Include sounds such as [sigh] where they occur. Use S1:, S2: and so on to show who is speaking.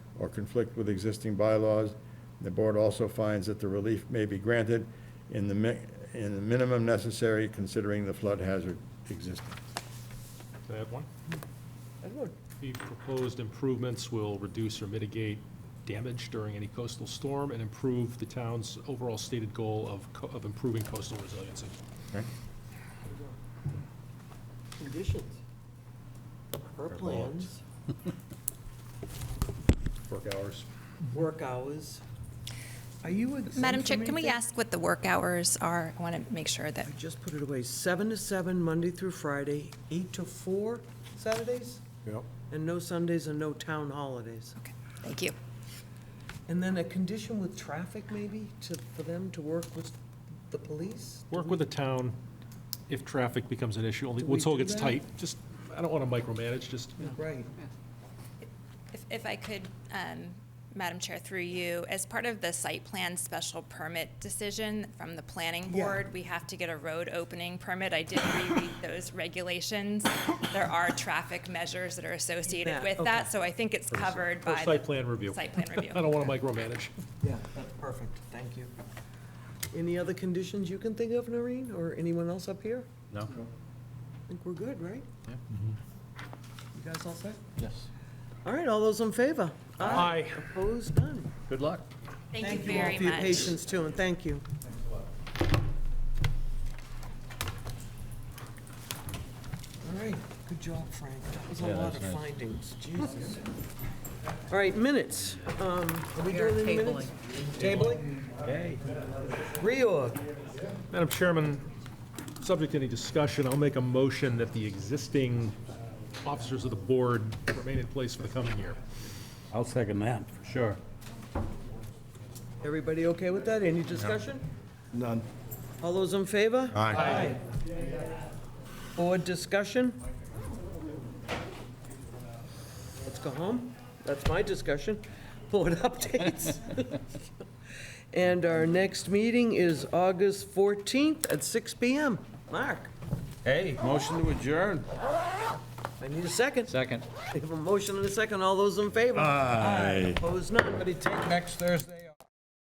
S1: or conflict with existing bylaws. The board also finds that the relief may be granted in the mi, in the minimum necessary considering the flood hazard existing.
S2: Can I add one? The proposed improvements will reduce or mitigate damage during any coastal storm and improve the town's overall stated goal of, co- of improving coastal resiliency.
S1: Okay?
S3: Conditions.
S1: Her
S3: Her plans,
S2: Work hours.
S3: work hours.
S4: Are you exempt
S5: Madam
S4: from
S5: Chair, can we
S4: anything?
S5: ask what the work hours are? I want to make sure that,
S3: I just put it away. Seven to seven, Monday through Friday, eight to four Saturdays,
S1: Yep.
S3: and no Sundays and no town holidays.
S5: okay, thank you.
S3: And then a condition with traffic maybe to, for them to work with the police?
S2: Work with the town if traffic becomes an issue, only,
S3: Do we
S2: until it
S3: do
S2: gets
S3: that?
S2: tight, just, I don't want to micromanage, just, you know.
S3: Right.
S5: If- If I could, um, Madam Chair, through you, as part of the site plan special permit decision from the planning
S3: Yeah.
S5: board, we have to get a road opening permit. I did
S3: [coughs]
S5: reread those regulations. There are traffic measures that are associated
S3: That,
S5: with
S3: okay.
S5: that, so I think it's covered
S2: for
S5: by.
S2: site
S5: the
S2: plan review. [laughs]
S5: Site plan review.
S2: I don't want to micromanage.
S3: Yeah, that's perfect. Thank you. Any other conditions you can think of, Noreen, or anyone else up here?
S2: No.
S3: I think we're good, right? Mm-hmm.
S6: Yeah.
S3: You guys all set?
S6: Yes.
S3: All right, all those in favor?
S2: Aye.
S3: Opposed, none.
S6: Good luck.
S5: Thank you very much.
S3: all for your patience too, and thank you. All right, good job, Frank. That was a
S6: Yeah, that
S3: lot
S6: was
S3: of
S6: nice.
S3: findings, Jesus. All right, minutes. Um, Are we doing any minutes? Tabling?
S6: Okay.
S3: Reorg.
S2: Madam Chairman, subject to any discussion, I'll make a motion that the existing officers of the board remain in place for the coming year.
S6: I'll second that, for sure.
S3: Everybody okay with that? Any discussion? None. All those in favor? Aye. Board discussion? Let's go home. That's my discussion. Board [laughs] updates. And our next meeting is August 14th at 6 PM. Mark,
S6: Hey, motion to adjourn.
S3: I need a second.
S6: Second.
S3: We have a motion and a second. All those in favor? Aye. Opposed, none.
S6: Take next Thursday.